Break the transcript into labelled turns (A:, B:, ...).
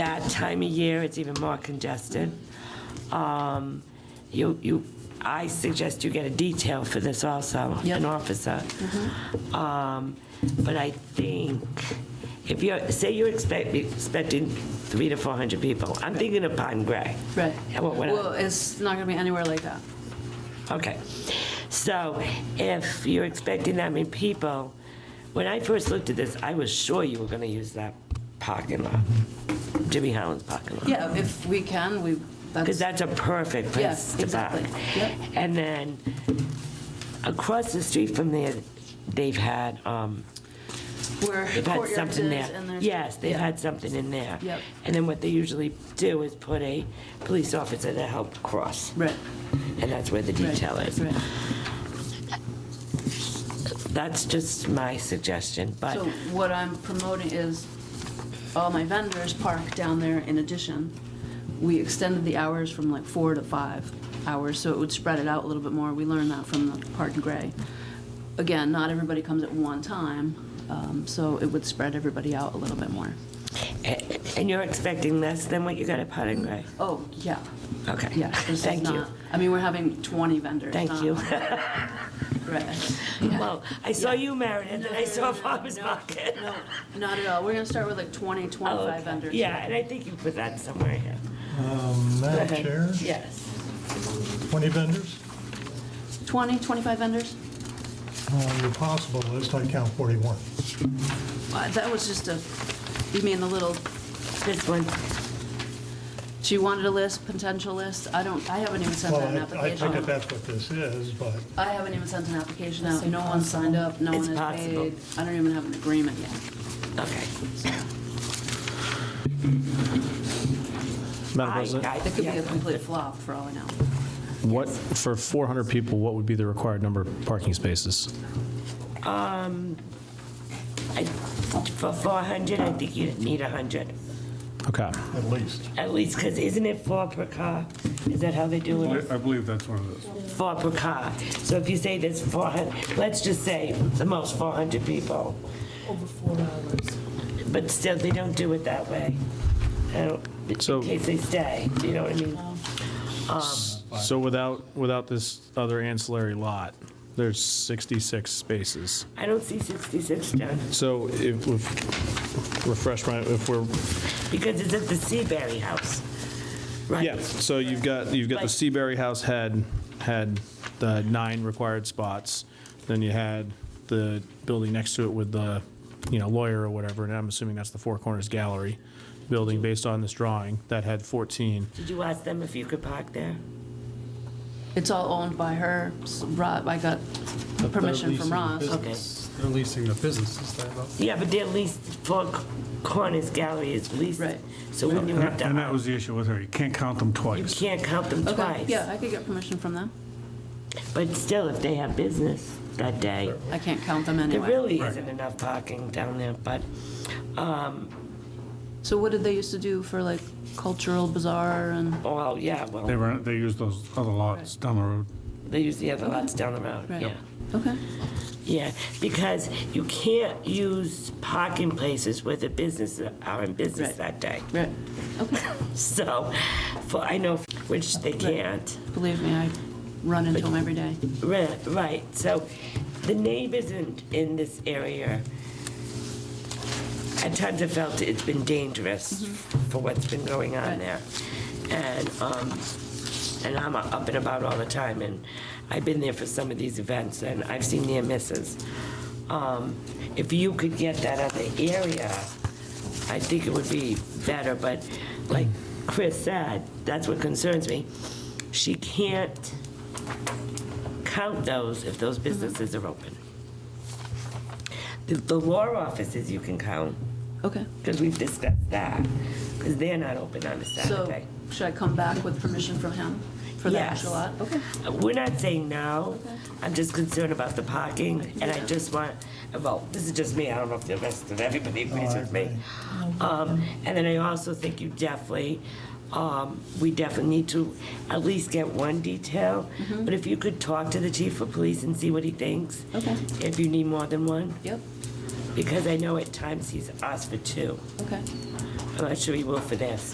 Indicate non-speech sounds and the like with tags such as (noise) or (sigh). A: that time of year, it's even more congested. Um, You, you, I suggest you get a detail for this also, an officer. Um, But I think, if you're, say you're expect- expecting three to 400 people, I'm thinking of Pine Gray.
B: Right.
A: Yeah, what- what I-
B: Well, it's not going to be anywhere like that.
A: Okay. So if you're expecting that many people, when I first looked at this, I was sure you were going to use that parking lot, Jimmy Holland's parking lot.
B: Yeah, Um, if we can, we,
A: Because
B: that's,
A: that's a perfect place
B: Yes,
A: to park.
B: exactly. Yep.
A: And then across the street from there, they've had, um,
B: where
A: they've had
B: courtyard is
A: something there.
B: and there's.
A: Yes, they've
B: yeah.
A: had something in there.
B: Yep.
A: And then what they usually do is put a police officer to help cross.
B: Right.
A: And that's where the
B: right,
A: detail is.
B: right.
A: That's just my suggestion, but.
B: So what I'm promoting is all my vendors park down there in addition. We extended the hours from like four to five hours, so it would spread it out a little bit more. We learned that from the Park and Gray. Again, not everybody comes at one time, um, so it would spread everybody out a little bit more.
A: A- And you're expecting less than what you got at Potting Gray?
B: Oh, yeah,
A: Okay.
B: yeah. this is
A: Thank you.
B: not- I mean, we're having 20 vendors.
A: Thank
B: not- (laughs)
A: you.
B: Right.
A: Well, (laughs) I saw you, Meredith, and I saw Farmers Market.
B: No, not at all. We're going to start with like 20,
A: Oh,
B: 25 vendors.
A: Yeah, and I think you put that somewhere here.
C: Um, Madam
A: ahead.
C: Chair,
A: Yes.
C: 20 vendors?
B: 20, 25 vendors?
C: On your possible list, I count 41.
B: Uh, That was just a, you mean the little,
A: This one,
B: she wanted a list, potential list? I don't, I haven't even sent
C: Well,
B: out an
C: I- I take it
B: application.
C: that's what this is, but
B: I haven't even sent an application out. No one signed up, no one
A: It's
B: has
A: possible.
B: paid. I don't even have an agreement yet.
A: okay.
D: Madam
A: I-
D: President,
A: I-
B: It could be a
A: yeah.
B: complete flop for all I know.
D: what, for 400 people, what would be the required number of parking spaces?
A: I- For 400, I think you'd need 100,
D: Okay,
C: at least.
A: at least, because isn't it four per car? Is that how they do it?
E: I I believe that's one of those.
A: four per car. So if you say there's 400, let's just say the most 400 people. Over four hours. But still, they don't do it that way. I don't- In
D: So-
A: case they stay, do you know what I mean?
D: so without, without this other ancillary lot, there's 66 spaces.
A: I don't see 66 done,
D: So if, if- refresh my, if we're,
A: because it's at the Seaberry House, right?
D: yeah, so you've got, you've got the
A: Right.
D: Seaberry House had, had the nine required spots, then you had the building next to it with the, you know, lawyer or whatever, and I'm assuming that's the Four Corners Gallery building based on this drawing, that had 14.
A: Did you ask them if you could park there?
B: It's all owned by her. S- Rob, I got permission from Ross.
A: Okay.
F: They're leasing the businesses, they're not.
A: Yeah, but they're leased, Four Corners Gallery is leased.
B: Right.
A: So when you have to,
E: And that was the issue with her, you can't count them
A: you
E: twice.
A: can't count them
B: Okay,
A: twice.
B: Yeah, I could get permission from them.
A: But still, if they have business that day,
B: I can't count them
A: There
B: anyway.
A: really isn't enough parking down there, but
B: So what did they used to do for like cultural bazaar and?
A: Well, yeah,
E: They
A: well,
E: were, they use those other lots down the road.
A: they use the other lots down the road,
B: Right.
A: yeah.
B: Okay,
A: Yeah, because you can't use parking places where the business are in business
B: Right.
A: that day.
B: right. Okay.
A: So, for, I know, which they can't.
B: Believe me, I run into them every day.
A: Right, right, so the neighbors in, in this area, at times have felt it's been dangerous for what's been going on
B: Right.
A: there. And, um, and I'm up and about all the time, and I've been there for some of these events, and I've seen near misses. Um, If you could get that other area, I think it would be better, but like Chris said, that's what concerns me. She can't count those if those businesses are open. The, the law offices you can count,
B: Okay.
A: because we've discussed that, because they're not open on a
B: So
A: Saturday.
B: should I come back with permission from him for the
A: Yes.
B: actual lot? Okay.
A: We're not saying no,
B: Okay.
A: I'm just concerned about the parking, and I just want, well, this is just me, I don't know if the rest of everybody agrees with me. Um, And then I also think you definitely, um, we definitely need to at least get one detail,
B: Mm-hmm.
A: but if you could talk to the chief of police and see what he thinks.
B: Okay.
A: If you need more than one.
B: Yep,
A: Because I know at times he's asked for two.
B: okay.
A: I'm not sure he will for this,